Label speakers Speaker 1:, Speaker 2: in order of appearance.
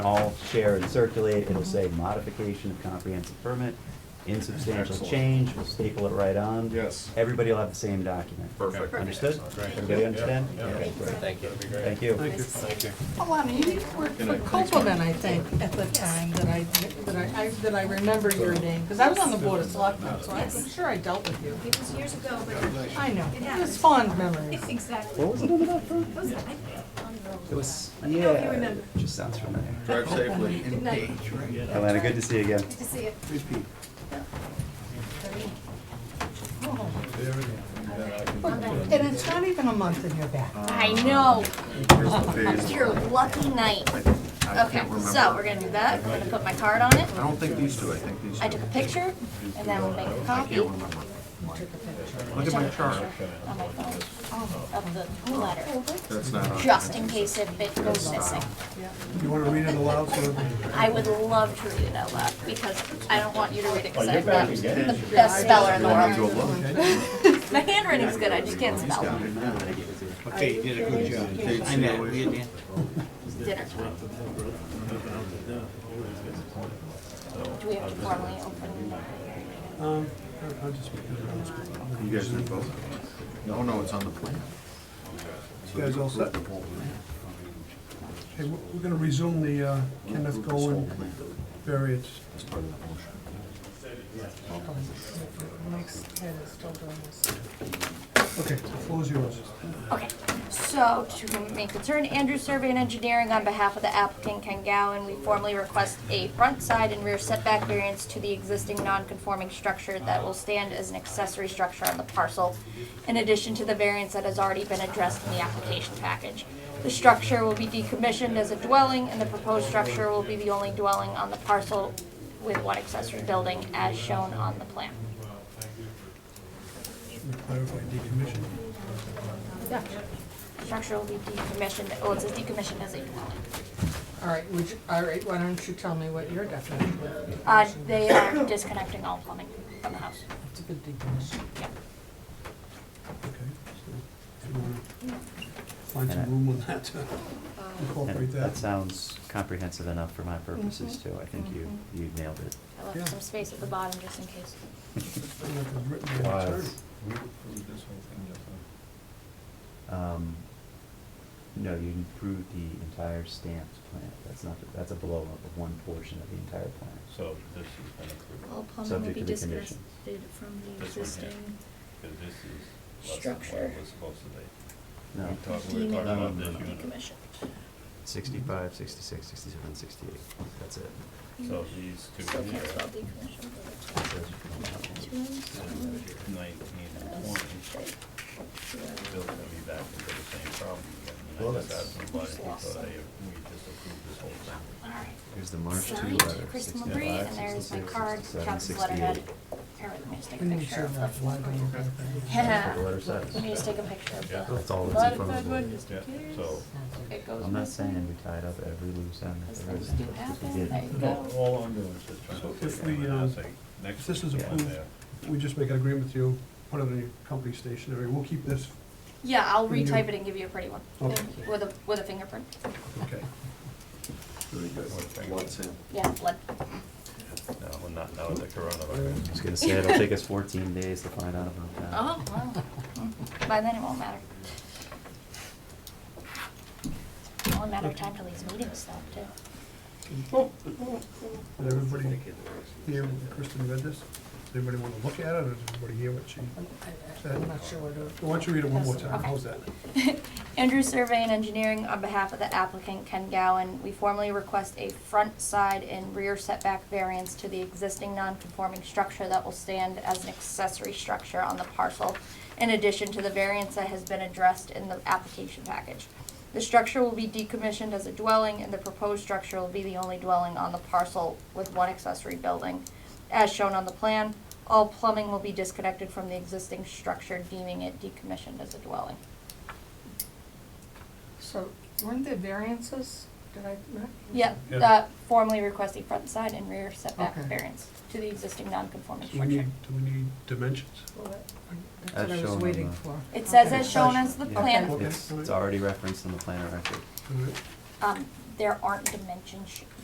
Speaker 1: all share and circulate. It'll say modification of comprehensive permit, insubstantial
Speaker 2: Excellent.
Speaker 1: change, we'll staple it right on.
Speaker 2: Yes.
Speaker 1: Everybody will have the same document.
Speaker 2: Perfect.
Speaker 1: Understood?
Speaker 2: Great.
Speaker 1: Everybody understand?
Speaker 2: Yeah,
Speaker 1: Yeah,
Speaker 2: yeah.
Speaker 1: great.
Speaker 3: Thank you.
Speaker 2: That'd be great.
Speaker 1: Thank you.
Speaker 2: Thank you.
Speaker 4: Alana, you worked
Speaker 2: Good
Speaker 4: for
Speaker 2: night. Thanks,
Speaker 4: Copeland, I think, at the time that I, that I, I- that I remember your name, because I was on the board of selectmen, so I'm
Speaker 5: Yes.
Speaker 4: sure I dealt with you.
Speaker 5: It was years ago, but.
Speaker 4: I know,
Speaker 5: It
Speaker 4: it was
Speaker 5: happens.
Speaker 4: fond memories.
Speaker 5: Exactly.
Speaker 1: What was the name of that firm?
Speaker 5: It was, I think, on the roll.
Speaker 1: It was,
Speaker 5: I don't know if you
Speaker 1: yeah,
Speaker 5: remember.
Speaker 1: it just sounds familiar.
Speaker 2: Drive safely.
Speaker 5: Good night.
Speaker 1: Atlanta, good to see you again.
Speaker 5: Good to see you.
Speaker 4: Oh. And it's not even a month in your back.
Speaker 6: I know.
Speaker 5: You're
Speaker 6: Your lucky night. Okay, so we're gonna do that. I'm gonna put my card on it.
Speaker 7: I don't think these two, I think these two.
Speaker 6: I took a picture and then we'll make a
Speaker 7: I
Speaker 6: copy
Speaker 7: can't
Speaker 6: on
Speaker 7: remember. Look at my chart.
Speaker 6: my
Speaker 4: Oh,
Speaker 6: phone of the letter,
Speaker 7: That's not on.
Speaker 6: just in case if it goes missing.
Speaker 8: You want to read it aloud so everybody?
Speaker 6: I would love to read it out loud because I don't want you to read it because I'm not the best speller in the world. My handwriting's good, I just can't spell.
Speaker 8: Okay, you did a good job.
Speaker 7: I know, we did.
Speaker 6: Dinner time. Do we have to formally open?
Speaker 8: Um, I'll- I'll just make it announcement.
Speaker 7: You guys did both? No, no, it's on the plan.
Speaker 8: You guys all set? Hey, we're we're gonna resume the uh, Kenneth Golan variance.
Speaker 4: Mike's head is still doing this.
Speaker 8: Okay, the floor's yours.
Speaker 6: Okay, so to make the turn, Andrew Survey and Engineering on behalf of the applicant Ken Gowen, we formally request a front, side, and rear setback variance to the existing non-conforming structure that will stand as an accessory structure on the parcel, in addition to the variance that has already been addressed in the application package. The structure will be decommissioned as a dwelling, and the proposed structure will be the only dwelling on the parcel with one accessory building as shown on the plan.
Speaker 8: Let me Clarify decommission.
Speaker 6: Structure will be decommissioned, oh, it says decommissioned as a dwelling.
Speaker 4: All right, would you, all right, why don't you tell me what your definition is?
Speaker 6: Uh, they are disconnecting all plumbing from the house.
Speaker 4: It's a good definition.
Speaker 8: Okay. so if you wanna Find some room on that to
Speaker 6: Uh,
Speaker 8: incorporate
Speaker 1: And that
Speaker 8: that.
Speaker 1: sounds comprehensive enough for my purposes too. I think you, you nailed it.
Speaker 6: I left some space at the bottom just in case.
Speaker 8: And that was written by the attorney.
Speaker 1: Um, No, you improved the entire stamped plan. That's not, that's a blow up of one portion of the entire plan.
Speaker 2: So this has been approved,
Speaker 5: All plumbing will
Speaker 1: Subject
Speaker 5: be
Speaker 1: to the conditions.
Speaker 5: disconnected from the
Speaker 2: This one here.
Speaker 5: existing.
Speaker 2: because this is less than what
Speaker 6: Structure.
Speaker 2: it was supposed to be.
Speaker 1: No,
Speaker 2: We talked, we were talking about this unit.
Speaker 6: Decommissioned.
Speaker 1: sixty-five, sixty-six, sixty-seven, sixty-eight. That's it.
Speaker 2: So these two
Speaker 6: Still
Speaker 2: here,
Speaker 6: can't spell decommissioned. but
Speaker 1: That's it.
Speaker 6: it's two rooms, one
Speaker 2: nineteen and
Speaker 6: room,
Speaker 2: twenty,
Speaker 6: straight, two rooms.
Speaker 2: built to be back into the same problem again.
Speaker 1: Well,
Speaker 2: And I just
Speaker 1: that's-
Speaker 2: asked somebody, so they, we just approved this whole thing.
Speaker 6: All right.
Speaker 1: Here's the March two
Speaker 6: Signed,
Speaker 1: letter,
Speaker 6: Chris Mabry,
Speaker 1: sixty-five,
Speaker 6: and there's my
Speaker 1: sixty-six,
Speaker 6: card,
Speaker 1: sixty-seven,
Speaker 6: Calvin's letterhead.
Speaker 1: sixty-eight.
Speaker 6: Here, let me just take a
Speaker 8: We need to
Speaker 6: picture of
Speaker 8: serve that flag on the
Speaker 6: the.
Speaker 8: back.
Speaker 6: Yeah.
Speaker 1: That's what the letter says.
Speaker 6: Let me just take a picture of
Speaker 2: Yeah.
Speaker 6: the.
Speaker 1: That's all that's in front of
Speaker 6: letterhead.
Speaker 1: us.
Speaker 2: Yeah, so,
Speaker 6: It goes
Speaker 1: I'm not
Speaker 6: missing,
Speaker 1: saying we tied up every loose end.
Speaker 6: Because
Speaker 1: there is.
Speaker 6: things do happen, there you
Speaker 2: no,
Speaker 6: go.
Speaker 2: all I'm doing is just trying
Speaker 8: So
Speaker 2: to
Speaker 8: if
Speaker 2: figure it
Speaker 8: we,
Speaker 2: out,
Speaker 8: uh,
Speaker 2: say, next.
Speaker 8: if this is
Speaker 2: one
Speaker 8: approved-
Speaker 2: there.
Speaker 8: We just make an agreement with you, put it on your company stationery. We'll keep this,
Speaker 6: Yeah, I'll
Speaker 8: Can you-
Speaker 5: Mm-hmm.
Speaker 6: retype it and give you a pretty one,
Speaker 8: Okay.
Speaker 6: with a, with a fingerprint.
Speaker 8: okay.
Speaker 7: Very good. Blood sample.
Speaker 6: Yeah, blood.
Speaker 2: No, we're not, now with the coronavirus.
Speaker 1: I was gonna say, it'll take us fourteen days to find out about that.
Speaker 6: Oh, wow. By then it won't matter. It won't matter of time till these meetings stop too.
Speaker 8: Did everybody hear what Kristen read this? Does anybody want to look at it, or does everybody hear what she said?
Speaker 4: I'm not sure where to.
Speaker 8: Why don't you read it one more
Speaker 4: That's-
Speaker 8: time,
Speaker 6: okay.
Speaker 8: how's that?
Speaker 6: Andrew Survey and Engineering, on behalf of the applicant Ken Gowen, we formally request a front, side, and rear setback variance to the existing non-conforming structure that will stand as an accessory structure on the parcel, in addition to the variance that has been addressed in the application package. The structure will be decommissioned as a dwelling, and the proposed structure will be the only dwelling on the parcel with one accessory building. As shown on the plan, all plumbing will be disconnected from the existing structure, deeming it decommissioned as a dwelling.
Speaker 4: So, weren't there variances? Did I? not-
Speaker 6: Yeah,
Speaker 8: Yeah.
Speaker 6: uh, formally requesting front side and rear setback
Speaker 4: Okay.
Speaker 6: variance to the existing non-conforming
Speaker 8: Do we need,
Speaker 6: structure.
Speaker 8: do we need dimensions?
Speaker 4: That's
Speaker 1: As
Speaker 4: what I
Speaker 1: shown
Speaker 4: was
Speaker 1: on
Speaker 4: waiting
Speaker 1: the-
Speaker 4: for.
Speaker 6: It says
Speaker 4: Okay.
Speaker 6: as shown as the
Speaker 1: Yeah.
Speaker 6: plan,
Speaker 8: Okay.
Speaker 1: It's, it's already referenced in the plan of record.
Speaker 8: All right.
Speaker 6: um, there aren't dimensions